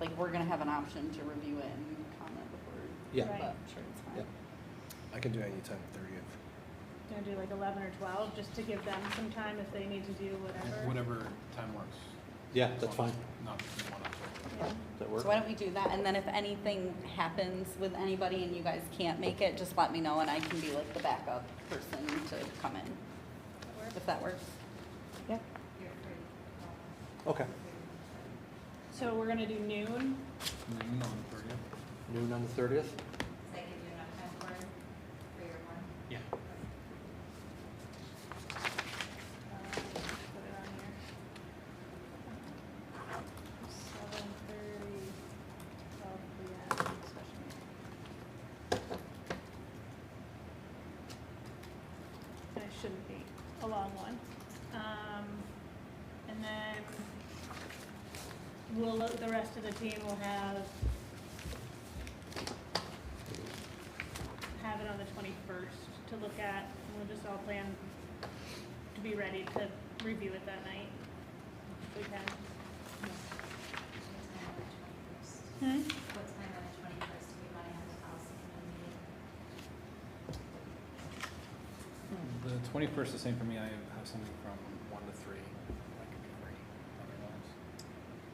like, we're gonna have an option to review it and comment before. Yeah. But Right. I'm sure it's Yeah. fine. I can do any time thirtieth. Gonna do like eleven or twelve, just to give them some time if they need to do whatever. Whatever time works. Yeah, As that's long fine. as Not between one and two. Yeah. Does So that why work? don't we do that, and then if anything happens with anybody and you guys can't make it, just let me know, and I can be like the backup person to come in, if that works. Yeah. Okay. So we're gonna do noon, Noon on the thirtieth? Noon on the thirtieth? Does that give you enough time for, for your one? Yeah. uh, put it on here. Seven thirty, twelve P M, special meeting. I shouldn't be a long one. Um, and then we'll, the rest of the team will have, have it on the twenty-first to look at. We'll just all plan to be ready to review it that night. if We can. What time on the twenty-first? What time on the twenty-first do we want to have the policy Hmm. The committee meeting? twenty-first is the same for me. I have something from one to three. I could be free otherwise.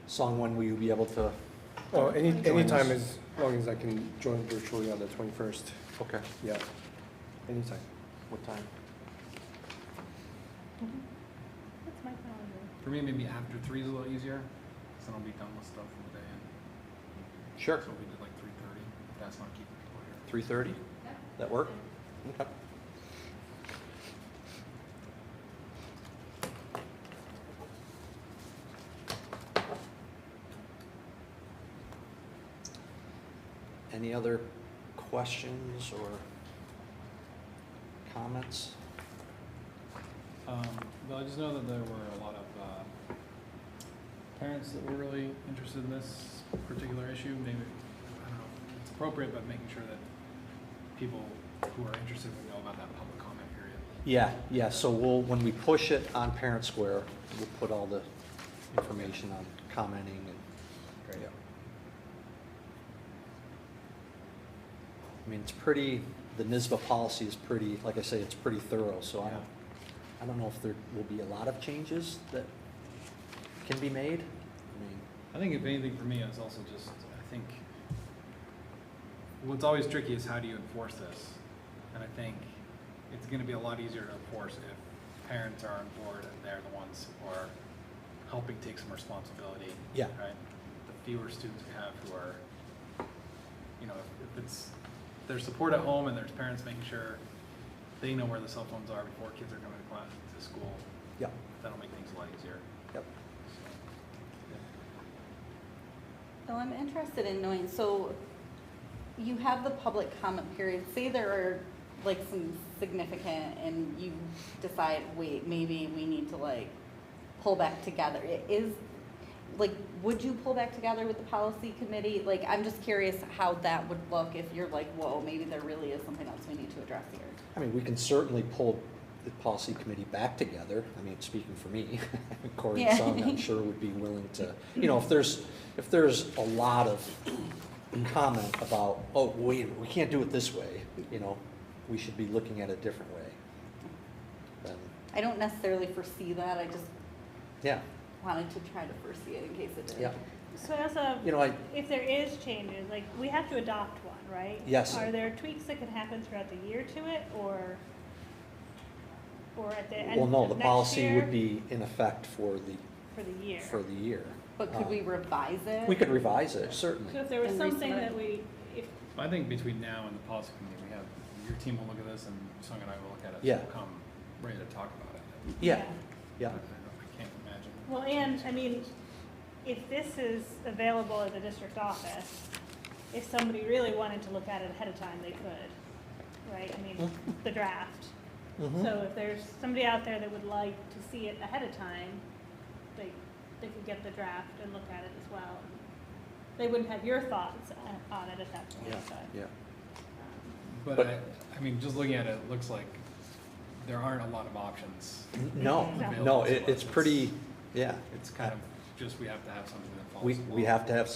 Song one, will you be able to? Oh, any, Join anytime us. as long as I can join virtually on the twenty-first, Okay. yeah, anytime. What time? That's my calendar. For me, maybe after three is a little easier, because then I'll be done with stuff for the day. and- Sure. So we did like three thirty, if that's not keeping people here. Three thirty? Yep. That work? Okay. Any other questions or comments? Um, well, I just know that there were a lot of, uh, parents that were really interested in this particular issue, maybe, I don't know if it's appropriate, but making sure that people who are interested would know about that public comment period. Yeah, yeah, so we'll, when we push it on Parent Square, we'll put all the information on commenting and. yeah. I mean, it's pretty, the NISBA policy is pretty, like I say, it's pretty thorough, so I don't, I don't know if there will be a lot of changes that can be made. I mean, I think if anything for me, it's also just, I think, what's always tricky is how do you enforce this? And I think it's gonna be a lot easier to enforce if parents are on board and they're the ones who are helping take some responsibility. Yeah. Right? The fewer students we have who are, you know, if- if it's, there's support at home and there's parents making sure they know where the cell phones are before kids are coming to class, to school, Yep, that'll make things a lot easier. yep. So I'm interested in knowing, so you have the public comment period, say there are like some significant and you decide, wait, maybe we need to like pull back together. It is, like, would you pull back together with the policy committee? Like, I'm just curious how that would look if you're like, whoa, maybe there really is something else we need to address here. I mean, we can certainly pull the policy committee back together. I mean, speaking for me, Corey Yeah. and Sung, I'm sure would be willing to, you know, if there's, if there's a lot of comment about, oh, wait, a minute, we can't do it this way, you know, we should be looking at it a different way. Then, I don't necessarily foresee that, I just yeah, wanted to try to foresee it in case it did. yeah, So I also, you know, I, if there is changes, like, we have to adopt one, right? Yes. Are there tweaks that could happen throughout the year to it, or, or at the end well, of next year? no, the policy would be in effect for the, For the year. for the year. But could Um, we revise it? We could revise it, certainly. So if there was And something resubmit. that we, if, I think between now and the policy committee, we have, your team will look at this and Sung and I will look at it. so Yeah. we'll Come ready to talk about it. Yeah, yeah, I I can't imagine. well, and, I mean, if this is available at the district office, if somebody really wanted to look at it ahead of time, they could, right? I mean, Hmm. the draft. mhm, So if there's somebody out there that would like to see it ahead of time, they, they could get the draft and look at it as well. They wouldn't have your thoughts uh, on it at that point, yeah, but. um, yeah. But But- I, I mean, just looking at it, it looks like there aren't a lot of options. No, Exactly. no, it, it's pretty, yeah. It's kind of just, we have to have something that falls. We, we along. have to have